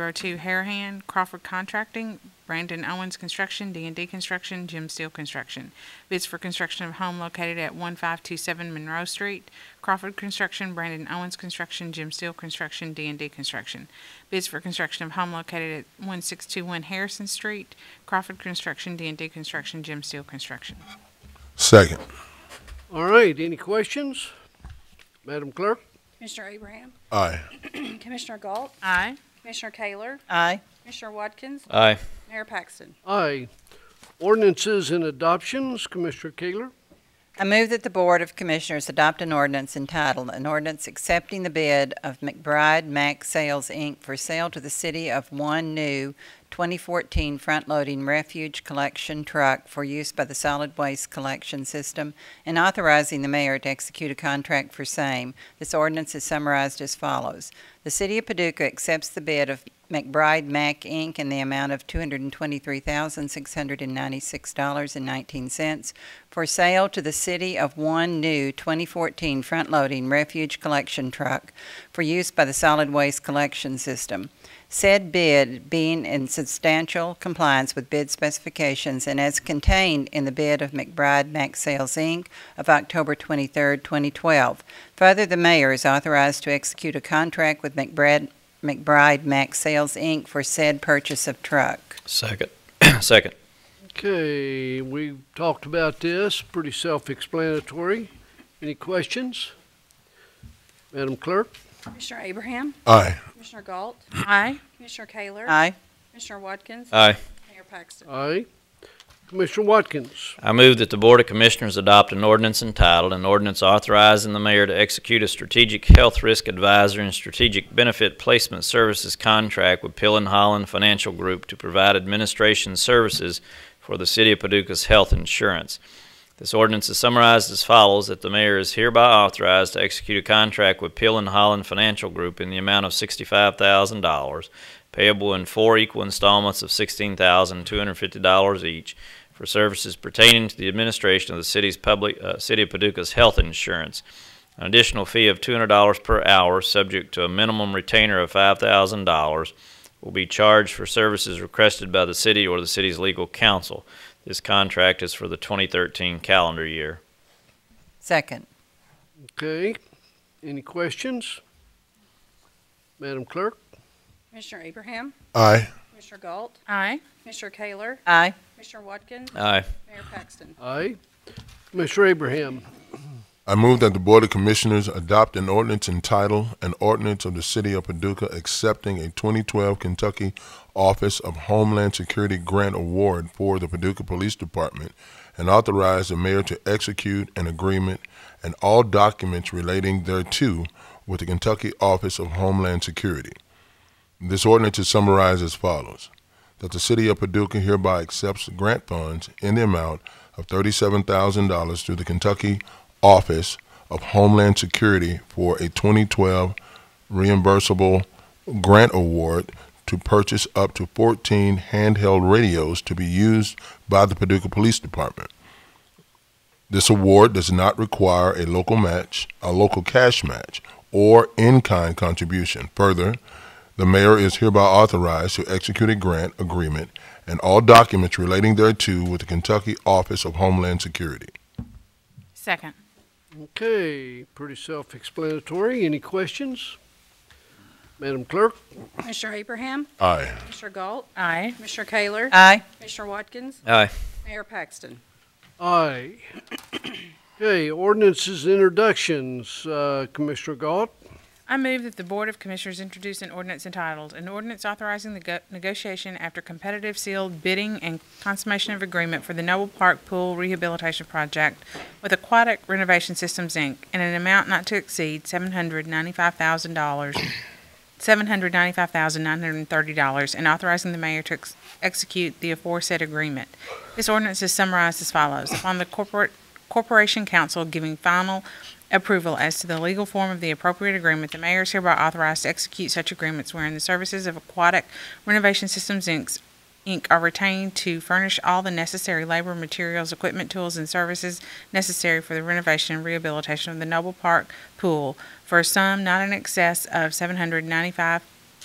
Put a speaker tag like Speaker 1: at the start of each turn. Speaker 1: 202 Harahan, Crawford Contracting, Brandon Owens Construction, d and D Construction, Jim Steele Construction. Bids for construction of home located at 1527 Monroe Street, Crawford Construction, Brandon Owens Construction, Jim Steele Construction, d and D Construction. Bids for construction of home located at 1621 Harrison Street, Crawford Construction, d and D Construction, Jim Steele Construction.
Speaker 2: Second.
Speaker 3: All right, any questions? Madam Clerk?
Speaker 4: Commissioner Abraham,
Speaker 2: Aye.
Speaker 4: Commissioner Galt,
Speaker 1: Aye.
Speaker 4: Commissioner Taylor,
Speaker 5: Aye.
Speaker 4: Commissioner Watkins,
Speaker 6: Aye.
Speaker 4: Mayor Paxton.
Speaker 3: Aye. Ordinances and adoptions, Commissioner Kaler.
Speaker 5: I move that the Board of Commissioners adopt an ordinance entitled, an ordinance accepting the bid of McBride Mac Sales, Inc. for sale to the city of one new 2014 front-loading refuge collection truck for use by the solid waste collection system and authorizing the mayor to execute a contract for same. This ordinance is summarized as follows. The city of Paducah accepts the bid of McBride Mac, Inc. in the amount of $223,696.19 for sale to the city of one new 2014 front-loading refuge collection truck for use by the solid waste collection system. Said bid being in substantial compliance with bid specifications and as contained in the bid of McBride Max Sales Inc. of October 23, 2012. Further, the mayor is authorized to execute a contract with McBride, McBride Max Sales Inc. for said purchase of truck.
Speaker 6: Second. Second.
Speaker 3: Okay, we talked about this, pretty self-explanatory. Any questions? Madam Clerk?
Speaker 4: Commissioner Abraham,
Speaker 2: Aye.
Speaker 4: Commissioner Galt,
Speaker 1: Aye.
Speaker 4: Commissioner Taylor,
Speaker 5: Aye.
Speaker 4: Commissioner Watkins,
Speaker 6: Aye.
Speaker 4: Mayor Paxton.
Speaker 3: Aye. Commissioner Watkins?
Speaker 6: I move that the Board of Commissioners adopt an ordinance entitled, an ordinance authorizing the mayor to execute a strategic health risk advisor and strategic benefit placement services contract with Pill and Holland Financial Group to provide administration services for the city of Paducah's health insurance. This ordinance is summarized as follows, that the mayor is hereby authorized to execute a contract with Pill and Holland Financial Group in the amount of sixty-five thousand dollars, payable in four equal installments of sixteen thousand two hundred fifty dollars each, for services pertaining to the administration of the city's public, uh, City of Paducah's health insurance. An additional fee of $200 per hour, subject to a minimum retainer of $5,000, will be charged for services requested by the city or the city's legal counsel. This contract is for the 2013 calendar year.
Speaker 5: Second.
Speaker 3: Okay, any questions? Madam Clerk?
Speaker 4: Commissioner Abraham,
Speaker 2: Aye.
Speaker 4: Commissioner Galt,
Speaker 1: Aye.
Speaker 4: Commissioner Taylor,
Speaker 5: Aye.
Speaker 4: Commissioner Watkins,
Speaker 6: Aye.
Speaker 4: Mayor Paxton.
Speaker 3: Aye. Commissioner Abraham?
Speaker 2: I move that the Board of Commissioners adopt an ordinance entitled, An Ordinance of the City of Paducah Accepting a 2012 Kentucky Office of Homeland Security Grant Award for the Paducah Police Department and authorize the mayor to execute an agreement and all documents relating thereto with the Kentucky Office of Homeland Security. This ordinance is summarized as follows. That the City of Paducah hereby accepts grant funds in the amount of $37,000 through the Kentucky Office of Homeland Security for a 2012 reimbursable grant award to purchase up to 14 handheld radios to be used by the Paducah Police Department. This award does not require a local match, a local cash match, or in-kind contribution. Further, the mayor is hereby authorized to execute a grant agreement and all documents relating thereto with the Kentucky Office of Homeland Security.
Speaker 1: Second.
Speaker 3: Okay, pretty self-explanatory. Any questions? Madam Clerk?
Speaker 4: Commissioner Abraham,
Speaker 2: Aye.
Speaker 4: Commissioner Galt,
Speaker 1: Aye.
Speaker 4: Commissioner Taylor,
Speaker 5: Aye.
Speaker 4: Commissioner Watkins,
Speaker 6: Aye.
Speaker 4: Mayor Paxton.
Speaker 3: Aye. Okay, ordinances and introductions, uh, Commissioner Galt.
Speaker 1: I move that the Board of Commissioners introduce an ordinance entitled, an ordinance authorizing the go- negotiation after competitive sealed bidding and consummation of agreement for the Noble Park Pool Rehabilitation Project with Aquatic Renovation Systems, Inc., in an amount not to exceed seven hundred ninety-five thousand dollars, seven hundred ninety-five thousand nine hundred and thirty dollars, and authorizing the mayor to ex- execute the aforesaid agreement. This ordinance is summarized as follows. Upon the corporate, Corporation Council giving final approval as to the legal form of the appropriate agreement, the mayor is hereby authorized to execute such agreements wherein the services of Aquatic Renovation Systems, Inc. Inc. are retained to furnish all the necessary labor, materials, equipment, tools, and services necessary for the renovation and rehabilitation of the Noble Park Pool for a sum not in excess of seven hundred ninety-five